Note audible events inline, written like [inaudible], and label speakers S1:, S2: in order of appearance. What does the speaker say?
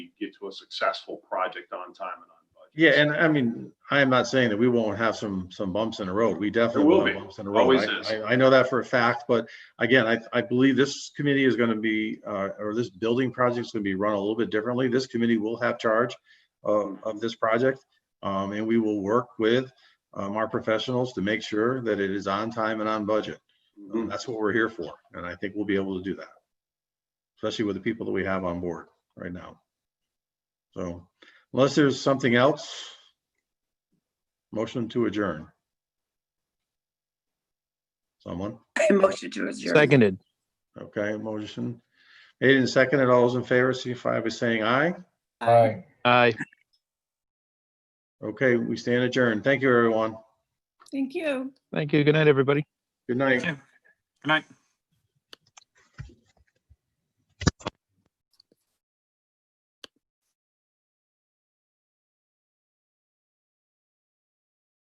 S1: a successful project on time and on budget.
S2: Yeah, and I mean, I am not saying that we won't have some, some bumps in the road. We definitely
S1: will
S2: will have
S1: be.
S2: bumps in the road.
S1: Always
S2: I-
S1: is.
S2: I, I know that for a fact, but again, I, I believe this committee is gonna be, uh, or this building project is gonna be run a little bit differently. This committee will have charge of, of this project. Um, and we will work with, um, our professionals to make sure that it is on time and on budget. Um, That's what we're here for, and I think we'll be able to do that. Especially with the people that we have on board right now. So unless there's something else, motion to adjourn. Someone,
S3: [laughs] I motion to adjourn.
S4: Seconded.
S2: okay, motion made and seconded. All those in favor, signify by saying aye.
S3: Aye.
S4: Aye.
S2: Okay, we stand adjourned. Thank you, everyone.
S3: Thank you.
S4: Thank you. Good night, everybody.
S2: Good night.
S5: Thank you. Good night.